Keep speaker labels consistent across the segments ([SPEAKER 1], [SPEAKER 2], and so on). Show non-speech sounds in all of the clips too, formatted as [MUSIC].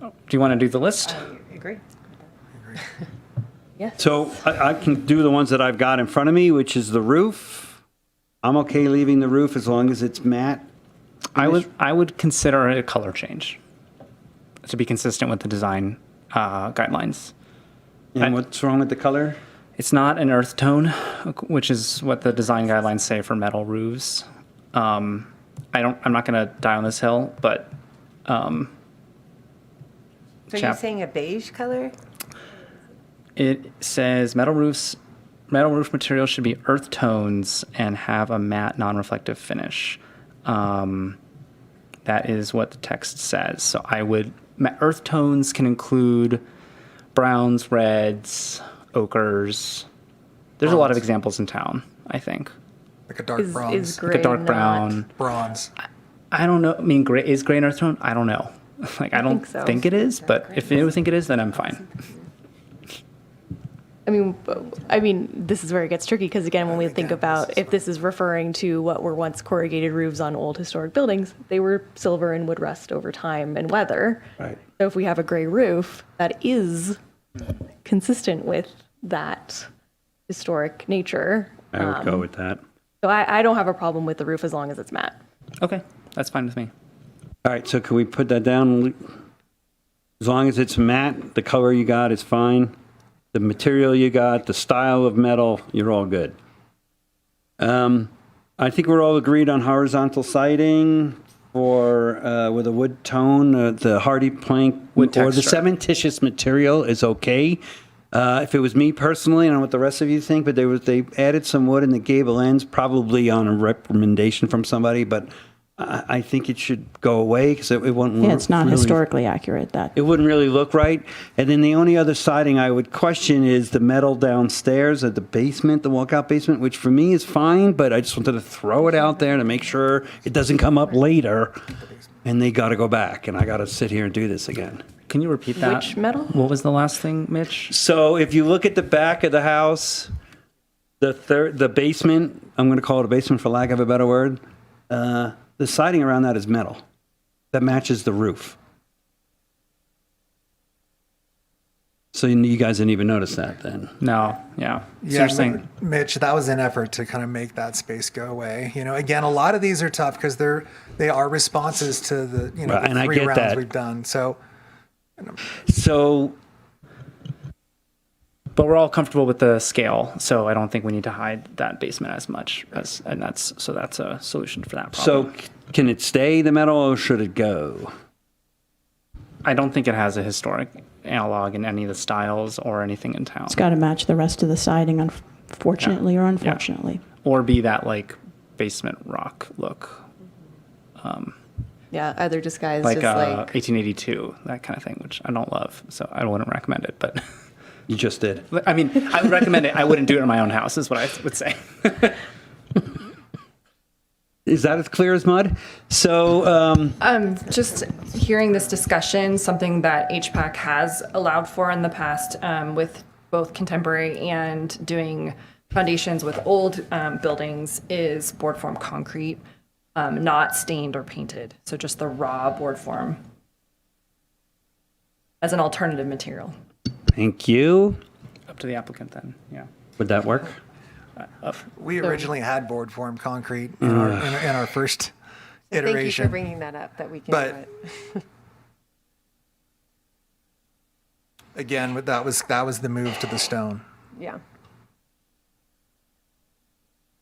[SPEAKER 1] Do you want to do the list?
[SPEAKER 2] Agree.
[SPEAKER 3] So I, I can do the ones that I've got in front of me, which is the roof. I'm okay leaving the roof as long as it's matte.
[SPEAKER 1] I would, I would consider it a color change to be consistent with the design uh, guidelines. I-
[SPEAKER 3] And what's wrong with the color?
[SPEAKER 1] It's not an earth tone, which is what the design guidelines say for metal roofs. Um, I don't, I'm not going to die on this hill, but um,
[SPEAKER 2] So you're
[SPEAKER 1] Chap-
[SPEAKER 2] saying a beige color?
[SPEAKER 1] It says metal roofs, metal roof materials should be earth tones and have a matte, non-reflective finish. Um, that is what the text says. So I would ma- earth tones can include browns, reds, ochres. There's a lot of
[SPEAKER 4] Browns.
[SPEAKER 1] examples in town. I think
[SPEAKER 4] Like a dark
[SPEAKER 5] Is,
[SPEAKER 4] bronze.
[SPEAKER 5] is gray
[SPEAKER 1] like a dark
[SPEAKER 5] not-
[SPEAKER 1] brown.
[SPEAKER 4] bronze.
[SPEAKER 1] I don't know. I mean, gray is gray an earth tone? I don't know. [LAUGHS] Like I, don't
[SPEAKER 5] think so.
[SPEAKER 1] think it is, but if you think it is, then I'm fine.
[SPEAKER 5] I mean, I mean, this is where it gets tricky because again, when we think about if this is referring to what were once corrugated roofs on old historic buildings, they were silver and would rust over time and weather.
[SPEAKER 3] Right.
[SPEAKER 5] So if we have a gray roof that is consistent with that historic nature,
[SPEAKER 3] I would go with that.
[SPEAKER 5] so I, I don't have a problem with the roof as long as it's matte.
[SPEAKER 1] Okay, that's fine with me.
[SPEAKER 3] All right, so can we put that down? As long as it's matte, the color you got is fine. The material you got, the style of metal, you're all good. Um, I think we're all agreed on horizontal siding for uh, with a wood tone, uh, the hardy plank
[SPEAKER 1] Wood
[SPEAKER 3] or the
[SPEAKER 1] texture.
[SPEAKER 3] cementitious material is okay. Uh, if it was me personally, I don't know what the rest of you think, but they was they added some wood in the gable ends, probably on a recommendation from somebody, but. I I think it should go away because it, it won't.
[SPEAKER 6] Yeah, it's not
[SPEAKER 3] really-
[SPEAKER 6] historically accurate, that.
[SPEAKER 3] It wouldn't really look right. And then the only other siding I would question is the metal downstairs at the basement, the walkout basement, which for me is fine, but I just wanted to throw it out there to make sure it doesn't come up later and they got to go back and I got to sit here and do this again.
[SPEAKER 1] Can you repeat that?
[SPEAKER 5] Which metal?
[SPEAKER 1] What was the last thing, Mitch?
[SPEAKER 3] So if you look at the back of the house, the third, the basement, I'm going to call it a basement for lack of a better word. Uh, the siding around that is metal that matches the roof. So you, you guys didn't even notice that then.
[SPEAKER 1] No, yeah.
[SPEAKER 4] Yeah,
[SPEAKER 1] so you're saying
[SPEAKER 4] Mitch, that was an effort to kind of make that space go away. You know, again, a lot of these are tough because they're they are responses to the you know
[SPEAKER 3] Right,
[SPEAKER 4] the
[SPEAKER 3] and I
[SPEAKER 4] three
[SPEAKER 3] get
[SPEAKER 4] rounds
[SPEAKER 3] that.
[SPEAKER 4] we've done. So
[SPEAKER 3] So
[SPEAKER 1] but we're all comfortable with the scale, so I don't think we need to hide that basement as much as and that's so that's a solution for that problem.
[SPEAKER 3] so c- can it stay the metal or should it go?
[SPEAKER 1] I don't think it has a historic analog in any of the styles or anything in town.
[SPEAKER 6] It's got to match the rest of the siding, unfortunately or unfortunately.
[SPEAKER 1] or be that like basement rock look.
[SPEAKER 2] Yeah, either disguised
[SPEAKER 1] Like,
[SPEAKER 2] as
[SPEAKER 1] uh,
[SPEAKER 2] like
[SPEAKER 1] 1882, that kind of thing, which I don't love, so I wouldn't recommend it. But [LAUGHS]
[SPEAKER 3] You just did.
[SPEAKER 1] I mean, I would recommend it. I wouldn't do it in my own house, is what I would say. [LAUGHS]
[SPEAKER 3] Is that as clear as mud? So um,
[SPEAKER 7] Um, just hearing this discussion, something that HPAC has allowed for in the past um, with both contemporary and doing foundations with old um, buildings is board form concrete, um, not stained or painted. So just the raw board form as an alternative material.
[SPEAKER 3] thank you.
[SPEAKER 1] Up to the applicant then. Yeah.
[SPEAKER 3] Would that work?
[SPEAKER 4] we originally had board form concrete in, our, in, our- in our first
[SPEAKER 2] thank you for
[SPEAKER 4] iteration.
[SPEAKER 2] bringing that up that we can
[SPEAKER 4] But-
[SPEAKER 2] do it.
[SPEAKER 4] again, but that was that was the move to the stone.
[SPEAKER 2] Yeah.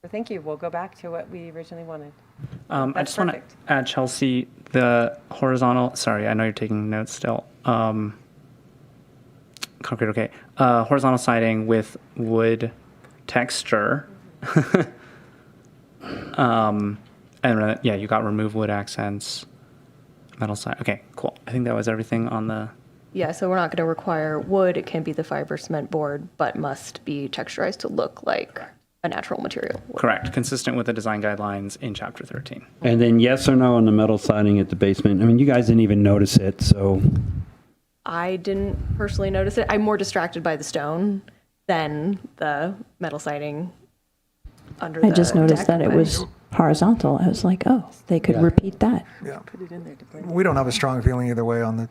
[SPEAKER 2] So thank you. We'll go back to what we originally wanted.
[SPEAKER 1] Um, I
[SPEAKER 2] That's
[SPEAKER 1] just want to
[SPEAKER 2] perfect.
[SPEAKER 1] add Chelsea the horizontal. Sorry, I know you're taking notes still. Um, concrete, okay. Uh, horizontal siding with wood texture. [LAUGHS] um, and re- yeah, you got remove wood accents, metal side. Okay, cool. I think that was everything on the.
[SPEAKER 5] Yeah, so we're not going to require wood. It can be the fiber cement board, but must be texturized to look like a natural material.
[SPEAKER 1] Correct, consistent with the design guidelines in chapter 13.
[SPEAKER 3] And then yes or no on the metal siding at the basement. I mean, you guys didn't even notice it, so
[SPEAKER 5] I didn't personally notice it. I'm more distracted by the stone than the metal siding under the
[SPEAKER 6] I just noticed
[SPEAKER 5] deck,
[SPEAKER 6] that it
[SPEAKER 5] but-
[SPEAKER 6] was horizontal. I was like, oh, they could repeat that.
[SPEAKER 4] Yeah, we don't have a strong feeling either way on the